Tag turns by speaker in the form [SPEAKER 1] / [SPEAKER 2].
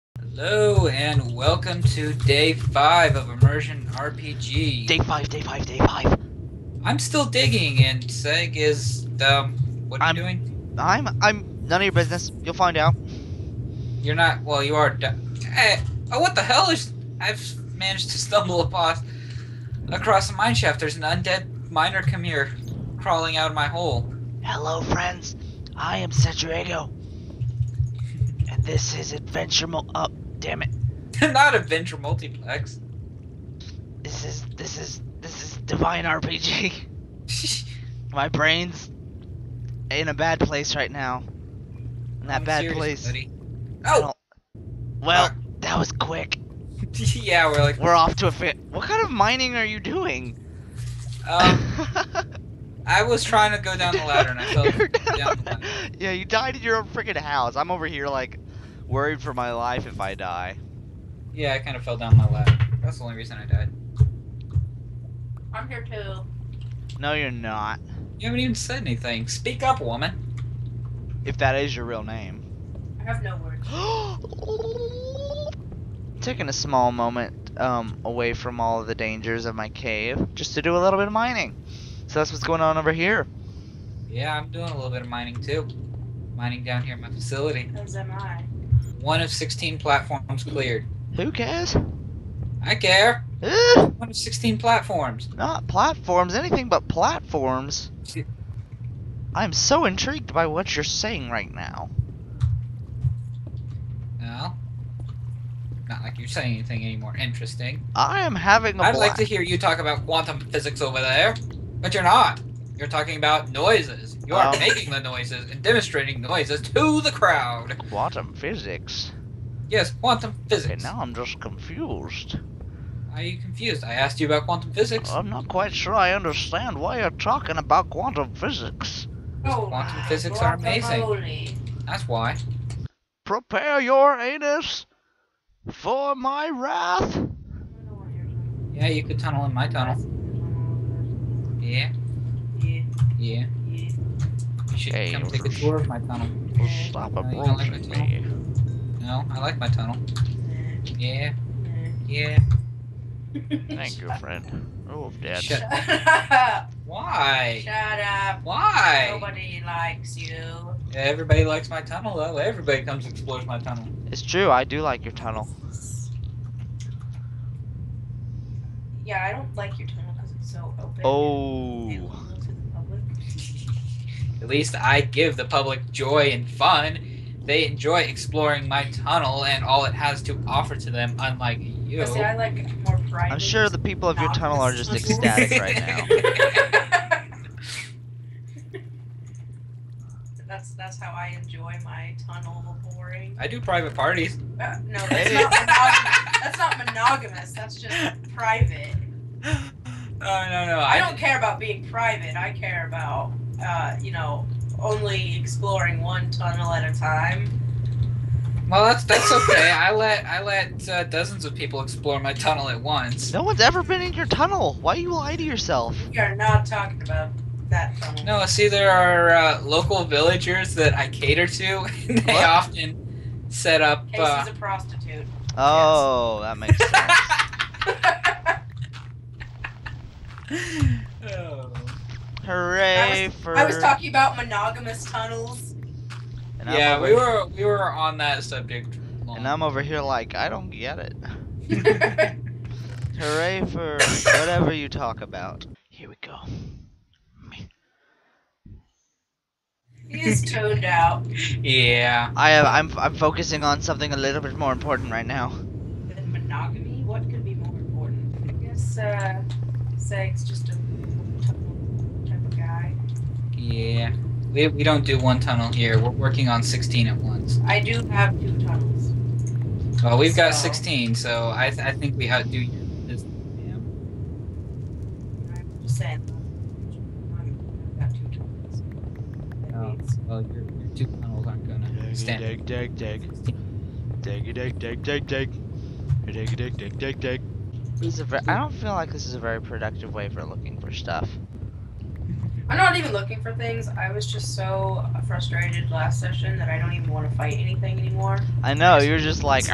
[SPEAKER 1] Hello and welcome to day five of Immersion RPG.
[SPEAKER 2] Day five, day five, day five.
[SPEAKER 1] I'm still digging, and Seg is um. What are
[SPEAKER 2] I'm-
[SPEAKER 1] you doing?
[SPEAKER 2] I'm I'm none of your business. You'll find out.
[SPEAKER 1] You're not. Well, you are. Di- hey, oh, what the hell is? I've managed to stumble upon across a mine shaft. There's an undead miner come here, crawling out of my hole.
[SPEAKER 2] Hello, friends. I am Centuriego, and this is Adventure Mo. Up, damn it.
[SPEAKER 1] not Adventure Multiplex.
[SPEAKER 2] This is this is this is Divine RPG. My brain's in a bad place right now. In that
[SPEAKER 1] I'm
[SPEAKER 2] bad
[SPEAKER 1] serious,
[SPEAKER 2] place.
[SPEAKER 1] buddy. Uh,
[SPEAKER 2] I
[SPEAKER 1] Oh.
[SPEAKER 2] don't- Well, that was quick.
[SPEAKER 1] yeah, we're like.
[SPEAKER 2] We're off to a fit. What kind of mining are you doing?
[SPEAKER 1] Um, I was trying to go down the ladder, and I fell down
[SPEAKER 2] You're
[SPEAKER 1] the
[SPEAKER 2] down-
[SPEAKER 1] ladder.
[SPEAKER 2] Yeah, you died in your own freaking house. I'm over here like worried for my life if I die.
[SPEAKER 1] Yeah, I kind of fell down my ladder. That's the only reason I died.
[SPEAKER 3] I'm here too.
[SPEAKER 2] No, you're not.
[SPEAKER 1] You haven't even said anything. Speak up, woman.
[SPEAKER 2] If that is your real name.
[SPEAKER 3] I have no words.
[SPEAKER 2] Taking a small moment um, away from all of the dangers of my cave just to do a little bit of mining. So that's what's going on over here.
[SPEAKER 1] Yeah, I'm doing a little bit of mining too. Mining down here in my facility.
[SPEAKER 3] As am I.
[SPEAKER 1] One of 16 platforms cleared.
[SPEAKER 2] Who cares?
[SPEAKER 1] I care.
[SPEAKER 2] Ugh,
[SPEAKER 1] One of 16 platforms.
[SPEAKER 2] not platforms, anything but platforms. I'm so intrigued by what you're saying right now.
[SPEAKER 1] No. Not like you're saying anything any more interesting.
[SPEAKER 2] I am having a
[SPEAKER 1] I'd
[SPEAKER 2] bla-
[SPEAKER 1] like to hear you talk about quantum physics over there, but you're not. You're talking about noises. You are
[SPEAKER 2] Um.
[SPEAKER 1] making the noises and demonstrating noises to the crowd.
[SPEAKER 2] quantum physics.
[SPEAKER 1] Yes, quantum
[SPEAKER 2] Okay,
[SPEAKER 1] physics.
[SPEAKER 2] now I'm just confused.
[SPEAKER 1] Are you confused? I asked you about quantum physics.
[SPEAKER 2] I'm not quite sure I understand why you're talking about quantum physics.
[SPEAKER 3] Oh,
[SPEAKER 1] Quantum
[SPEAKER 3] my
[SPEAKER 1] physics are amazing.
[SPEAKER 3] guacamole.
[SPEAKER 1] That's why.
[SPEAKER 2] Prepare your anus for my wrath.
[SPEAKER 3] I don't know what you're talking
[SPEAKER 1] Yeah, you could tunnel in my
[SPEAKER 3] about.
[SPEAKER 1] tunnel. Yeah,
[SPEAKER 3] Yeah,
[SPEAKER 1] yeah.
[SPEAKER 3] yeah,
[SPEAKER 1] You should
[SPEAKER 2] Hey,
[SPEAKER 1] come
[SPEAKER 2] you
[SPEAKER 1] take a
[SPEAKER 2] wanna-
[SPEAKER 1] tour of my tunnel.
[SPEAKER 3] yeah,
[SPEAKER 2] Stop
[SPEAKER 1] No, you don't like
[SPEAKER 2] approaching
[SPEAKER 1] my tunnel?
[SPEAKER 2] me.
[SPEAKER 1] No, I like my tunnel. Yeah,
[SPEAKER 3] yeah,
[SPEAKER 1] yeah.
[SPEAKER 3] yeah.
[SPEAKER 2] Thank you, friend. Oh, I'm dead.
[SPEAKER 1] Shut-
[SPEAKER 3] Shut up.
[SPEAKER 1] Why?
[SPEAKER 3] Shut up.
[SPEAKER 1] Why?
[SPEAKER 3] Nobody likes you.
[SPEAKER 1] Everybody likes my tunnel though. Everybody comes and explores my tunnel.
[SPEAKER 2] It's true, I do like your tunnel.
[SPEAKER 3] Yeah, I don't like your tunnel because it's so open. and
[SPEAKER 2] Oh.
[SPEAKER 3] available to the public.
[SPEAKER 1] At least I give the public joy and fun. They enjoy exploring my tunnel and all it has to offer to them, unlike you.
[SPEAKER 3] But see, I like more private.
[SPEAKER 2] I'm sure the people of your tunnel are just ecstatic right now.
[SPEAKER 3] That's that's how I enjoy my tunnel boring.
[SPEAKER 1] I do private parties.
[SPEAKER 3] Uh, no, that's
[SPEAKER 2] Hey.
[SPEAKER 3] not monogamous. That's not monogamous. That's just private.
[SPEAKER 1] oh no no!
[SPEAKER 3] I don't care about being private. I care about uh, you know only exploring one tunnel at a time.
[SPEAKER 1] Well, that's that's okay. I let I let uh, dozens of people explore my tunnel at once.
[SPEAKER 2] No one's ever been in your tunnel. Why you lie to yourself?
[SPEAKER 3] We are not talking about that tunnel.
[SPEAKER 1] No, see, there are uh, local villagers that I cater to, and they
[SPEAKER 2] What?
[SPEAKER 1] often set up. Uh,
[SPEAKER 3] Casey's a prostitute.
[SPEAKER 2] Oh, that makes sense.
[SPEAKER 1] oh.
[SPEAKER 2] Hooray for.
[SPEAKER 3] I was talking about monogamous tunnels.
[SPEAKER 2] and I'm
[SPEAKER 1] Yeah,
[SPEAKER 2] over-
[SPEAKER 1] we were we were on that subject. Long.
[SPEAKER 2] And I'm over here like, I don't get it.
[SPEAKER 3] I
[SPEAKER 2] Hooray for whatever you talk about. Here we go.
[SPEAKER 3] He's toned out.
[SPEAKER 1] yeah.
[SPEAKER 2] I am I'm I'm focusing on something a little bit more important right now.
[SPEAKER 3] Than monogamy? What could be more important? I guess uh, Seg's just a tunnel type of guy.
[SPEAKER 1] Yeah. We, we don't do one tunnel here. We're working on 16 at once.
[SPEAKER 3] I do have two tunnels.
[SPEAKER 1] Well, we've got
[SPEAKER 3] So-
[SPEAKER 1] 16, so I, th- I think we outdo you. This- yeah.
[SPEAKER 3] I'm just saying. I've got two tunnels. That
[SPEAKER 1] Oh,
[SPEAKER 3] means
[SPEAKER 1] well, your, your two tunnels aren't gonna stand.
[SPEAKER 4] Dig, dig, dig. Dig, dig, dig, dig, dig. Dig, dig, dig, dig, dig.
[SPEAKER 2] This is a ver- I don't feel like this is a very productive way for looking for stuff.
[SPEAKER 3] I'm not even looking for things. I was just so frustrated last session that I don't even want to fight anything anymore.
[SPEAKER 2] I know you're just like